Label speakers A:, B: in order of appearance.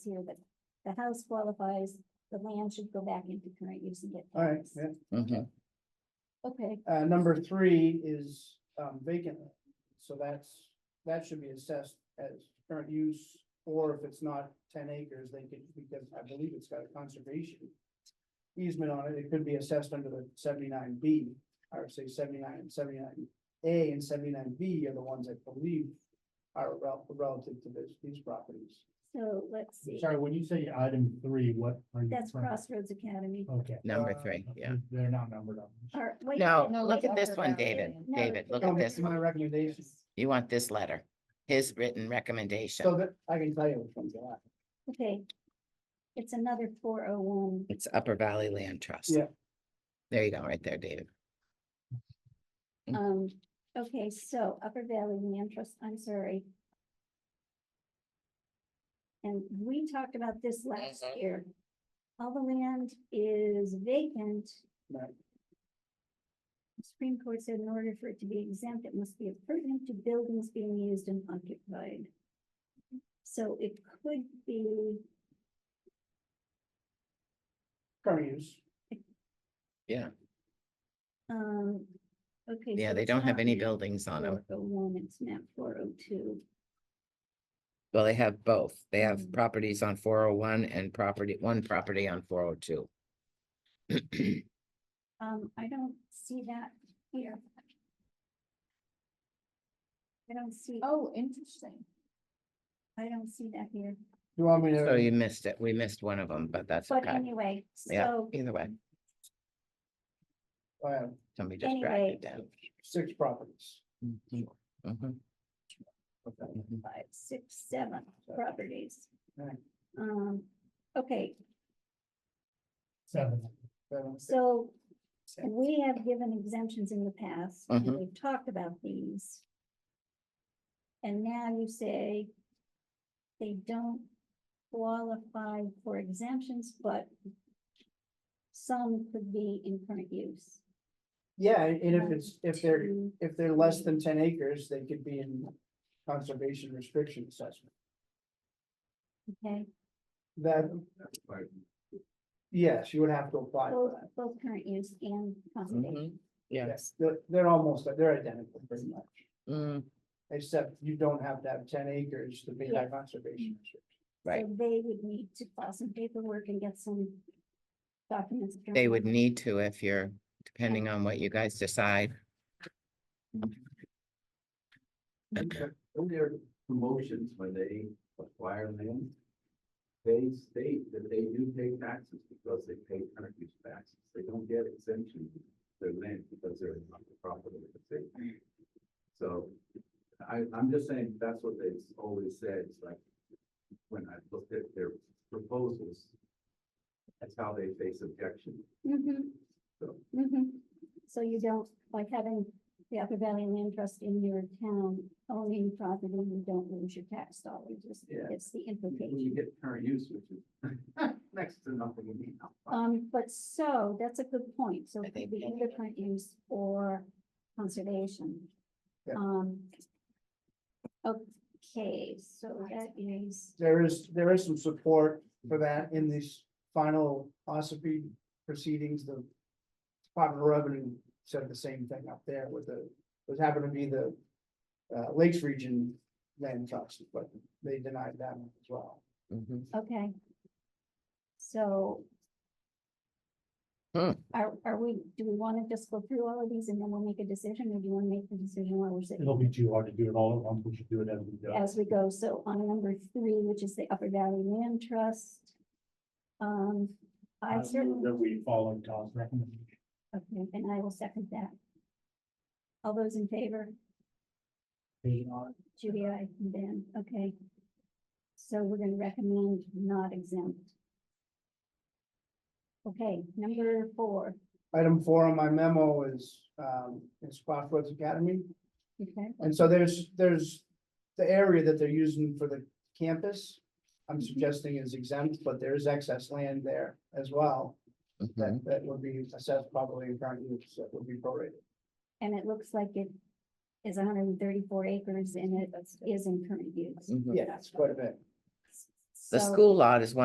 A: here that the house qualifies, the land should go back into current use and get.
B: All right,
A: taxed.
B: yeah.
C: Mhm.
A: Okay,
B: Uh, number three is, um, vacant, land. so that's, that should be assessed as current use. Or if it's not ten acres, they could, because I believe it's got a conservation easement on it, it could be assessed under the seventy-nine B. I would say seventy-nine and seventy-nine A and seventy-nine B are the ones I believe are rel- relative to this, these properties.
A: so let's see,
D: Sorry, when you say item three, what are you?
A: that's
D: referring-
A: Crossroads Academy.
B: Oh.
D: Okay.
C: Number
D: Uh,
C: three, yeah.
D: They're not numbered up.
A: Or wait,
C: No,
A: no,
C: look
A: wait,
C: at this
A: upper
C: one,
A: valley
C: David,
A: area. No,
C: David, look
B: So
C: at this.
B: Oh, My recommendation,
C: You want this letter, his written
B: so
C: recommendation.
B: that I can tell you which ones are.
A: Okay. It's another four oh one.
C: It's Upper Valley Land Trust.
B: Yeah.
C: There you go, right there, David. Mm.
A: Um, okay, so Upper Valley Land Trust, I'm sorry. And we talked about this last
C: Mhm.
A: year. All the land is vacant.
B: Right.
A: The Supreme Court said in order for it to be exempt, it must be appurtenant to buildings being used and occupied. So it could be,
B: current use.
A: um, okay.
C: Yeah,
A: so
C: they
A: it's
C: don't have
A: not
C: any
A: map
C: buildings on them.
A: 401, it's map four oh two.
C: Well, they have both. They have
A: Mm.
C: properties on four oh one and property, one property on four oh two.
A: Um, I don't see that here. I don't see,
E: Oh, interesting.
A: I don't see that here,
B: You want me to?
C: So you missed it. We missed one of them, but that's
A: but
C: okay.
A: anyway,
C: Yeah.
A: so,
C: Either way,
B: I have
C: somebody just dragged it down.
B: uh, six properties.
C: Mhm, mhm,
B: Okay.
C: mhm.
A: five, six, seven properties.
B: Right.
A: Um, okay,
D: Seven.
B: Seven.
A: so
B: Six.
A: we have given exemptions in the past, and
C: Mhm.
A: we've talked about these. And now you say they don't qualify for exemptions, but some could be in current use. Mm,
B: Yeah, and if it's, if they're,
A: to-
B: if they're less than ten acres, they could be in conservation restriction assessment.
A: Okay,
B: That. Yes, you would have to apply
A: both,
B: for that.
A: both current use and conservation.
C: Mhm. Yeah.
B: Yes, they're, they're almost, they're identical pretty much,
C: Mm,
B: except you don't have to have ten acres to be in
A: Yeah.
B: that conservation. restriction.
C: Right.
A: So They would need to file some paperwork and get some documents.
C: They would need to if you're, depending on what you guys decide.
F: In their promotions, when they acquire land, they state that they do pay taxes because they pay current use taxes. They don't get exemption for their land because they're not the property of the state. So I, I'm just saying, that's what they've always said, it's like, when I looked at their proposals, that's how they face objection.
A: Mm-hmm.
F: So-
A: Mm-hmm. So you don't, like having the Upper Valley Land Trust in your town owning property, you don't lose your tax dollars. is-
F: Yeah.
A: It's the
F: When you
A: implication.
F: get current use, which is next to nothing, you need.
A: Um, but so, that's a good point. So it
C: they
A: could be
C: paying
A: either current use or conservation.
B: Yeah.
A: Um. Okay, so that is,
B: There is, there is some support for that in these final OSFP proceedings, the Department of Revenue said the same thing up there with the, was happened to be the uh, Lakes Region land trust, but they denied that one as well.
C: Mhm.
A: okay. So.
C: Hmm.
A: Are, are we, do we want to just go through all of these and then we'll make a decision, or do you want to make the decision while we're sitting
D: It'll be too hard to do it all at once. We should do it as we go.
A: as we go? So on number three, which is the Upper Valley Land Trust. Um, I
D: Uh,
A: certainly.
D: That we follow Tom's recommendation.
A: Okay, and I will second that. All those in favor, Judy, I, and Ben, okay. So we're gonna recommend not exempt. Okay, number four,
B: Item four on my memo is, um, is Crossroads Academy.
A: okay,
B: And so there's, there's the area that they're using for the campus. I'm suggesting is exempt, but there is excess land there as well.
C: Mhm.
B: that, that would be assessed probably in current use, that would be prorated.
A: and it looks like it is hundred and thirty-four acres and it is in current use.
C: Mhm.
B: Yeah, it's quite a bit.
C: The
A: So-
C: school lot is one.